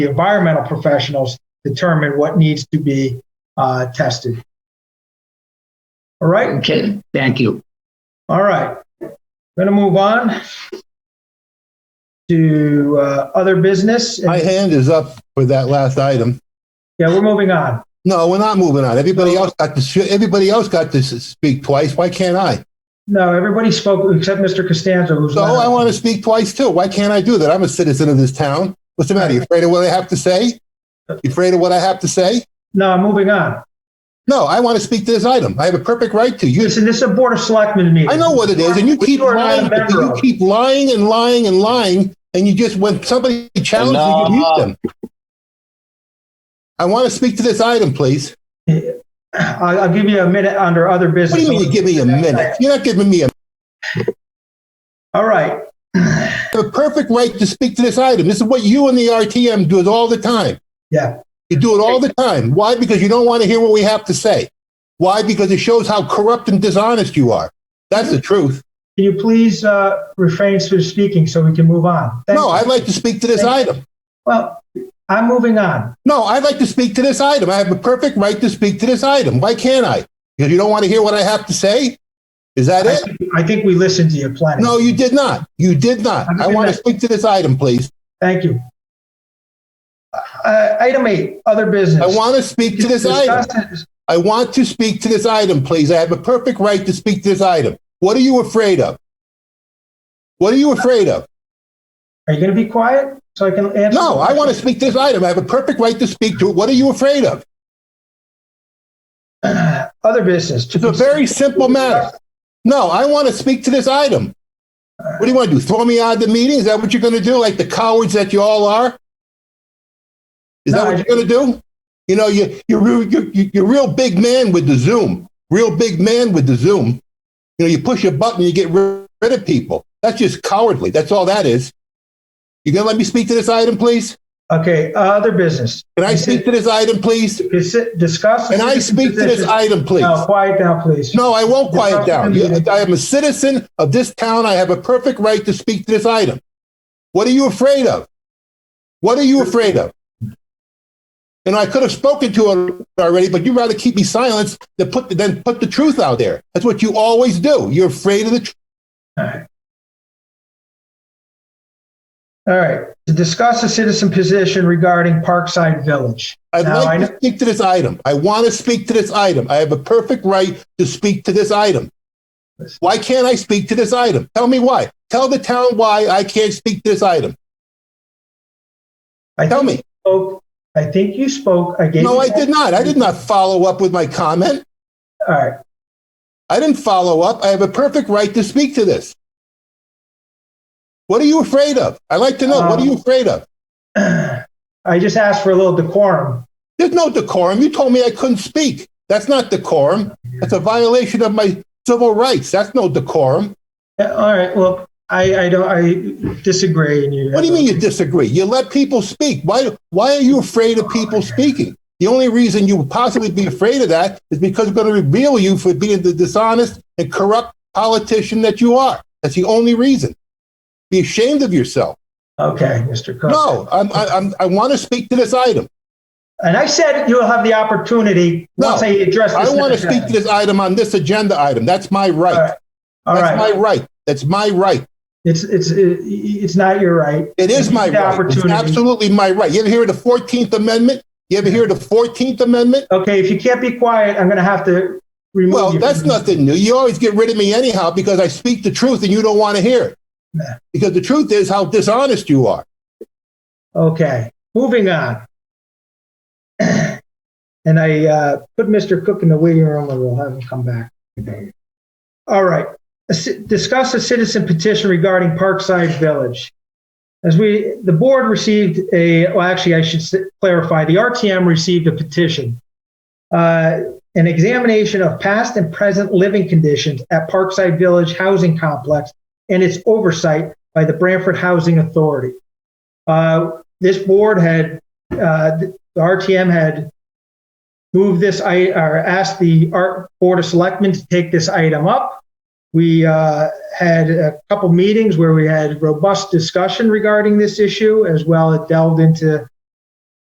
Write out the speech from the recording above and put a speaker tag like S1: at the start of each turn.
S1: the environmental professionals determine what needs to be uh, tested. All right,
S2: Okay, thank you.
S1: all right. Going to move on to uh, other business.
S3: My hand is up for that last item.
S1: Yeah, we're moving on.
S3: No, we're not moving on. Everybody else got to, sh- everybody else got to s- speak twice. Why can't I?
S1: No, everybody spoke except Mr. Costanzo, who's
S3: So I
S1: not.
S3: want to speak twice too. Why can't I do that? I'm a citizen of this town. What's the matter? You afraid of what I have to say? You afraid of what I have to say?
S1: No, I'm moving on.
S3: No, I want to speak to this item. I have a perfect right to. You,
S1: Listen, this is a Board of Selectmen meeting.
S3: I know what it is, and you
S1: Which
S3: keep
S1: are not a
S3: lying.
S1: member
S3: You
S1: of.
S3: keep lying and lying and lying, and you just when somebody challenges you, you mute them. I want to speak to this item, please.
S1: I'll, I'll give you a minute under other
S3: What
S1: business.
S3: do you mean you give me a minute? You're not giving me a
S1: All right.
S3: the perfect right to speak to this item. This is what you and the RTM do it all the time.
S1: Yeah.
S3: You do it all the time. Why? Because you don't want to hear what we have to say. Why? Because it shows how corrupt and dishonest you are. That's the truth.
S1: Can you please uh, refrain from speaking so we can move on? Thank
S3: No,
S1: you.
S3: I'd like to speak to this item.
S1: Well, I'm moving on.
S3: No, I'd like to speak to this item. I have a perfect right to speak to this item. Why can't I? Because you don't want to hear what I have to say? Is that
S1: I
S3: it?
S1: think, I think we listened to you plenty.
S3: No, you did not. You did not. I want to speak to this item, please.
S1: Thank you. Uh, item eight, other business.
S3: I want to speak to this item.
S1: Discuss-
S3: I want to speak to this item, please. I have a perfect right to speak to this item. What are you afraid of? What are you afraid of?
S1: Are you going to be quiet so I can answer?
S3: No, I want to speak to this item. I have a perfect right to speak to it. What are you afraid of?
S1: Other business. to
S3: It's a very simple matter. No, I want to speak to this item. What do you want to do? Throw me out of the meeting? Is that what you're going to do? Like the cowards that you all are? Is that
S1: No, I-
S3: what you're going to do? You know, you, you're, real- you're, you're real big man with the Zoom, real big man with the Zoom. You know, you push a button, you get rid rid of people. That's just cowardly. That's all that is. You going to let me speak to this item, please?
S1: Okay, other business.
S3: Can I speak to this item, please?
S1: Dis- Discuss. the
S3: Can I
S1: citizen
S3: speak to this
S1: petition.
S3: item, please?
S1: No, quiet down, please.
S3: No, I won't quiet down. You-
S1: Discuss-
S3: I am a citizen of this town. I have a perfect right to speak to this item. What are you afraid of? What are you afraid of? And I could have spoken to it already, but you'd rather keep me silent than put, than put the truth out there. That's what you always do. You're afraid of the truth.
S1: All right, to discuss the citizen position regarding Parkside Village.
S3: I'd
S1: No, I
S3: like
S1: know-
S3: to speak to this item. I want to speak to this item. I have a perfect right to speak to this item. Why can't I speak to this item? Tell me why. Tell the town why I can't speak to this item.
S1: I
S3: Tell
S1: think
S3: me.
S1: you spoke- I think you spoke, I gave.
S3: No,
S1: you-
S3: I did not. I did not follow up with my comment.
S1: All right,
S3: I didn't follow up. I have a perfect right to speak to this. What are you afraid of? I'd like to know. what are you afraid of?
S1: I just asked for a little decorum.
S3: There's no decorum. You told me I couldn't speak. That's not decorum. That's a violation of my civil rights. That's no decorum.
S1: Yeah, All right, well, I, I don't, I disagree in you.
S3: What do you mean you disagree? You let people speak. Why, why are you afraid of people speaking? The only reason you would possibly be afraid of that is because we're going to reveal you for being the dishonest and corrupt politician that you are. That's the only reason. Be ashamed of yourself.
S1: Okay, Mr. Cook.
S3: No, I'm, I, I'm, I want to speak to this item.
S1: And I said you'll have the opportunity,
S3: No,
S1: once I address this.
S3: I want to
S1: next
S3: speak to
S1: item.
S3: this item on this agenda item. That's my
S1: All
S3: right.
S1: right, all
S3: That's my
S1: right,
S3: right. That's my right.
S1: it's, it's, it's not your right.
S3: It is my
S1: The
S3: right. It's
S1: opportunity.
S3: absolutely my right. You ever hear of the 14th Amendment? You ever hear of the 14th Amendment?
S1: Okay, if you can't be quiet, I'm gonna have to remove you.
S3: Well, that's
S1: from-
S3: nothing new. You always get rid of me anyhow because I speak the truth and you don't want to hear it.
S1: Nah.
S3: Because the truth is how dishonest you are.
S1: Okay, moving on. And I uh, put Mr. Cook in the waiting room and we'll have him come back. All right, A ci- discuss a citizen petition regarding Parkside Village. As we, the board received a, well, actually, I should s- clarify, the RTM received a petition. Uh, An examination of past and present living conditions at Parkside Village Housing Complex and its oversight by the Branford Housing Authority. Uh, This board had, uh, the RTM had moved this, I, or asked the Art Board of Selectmen to take this item up. We uh, had a couple meetings where we had robust discussion regarding this issue, as well as delved into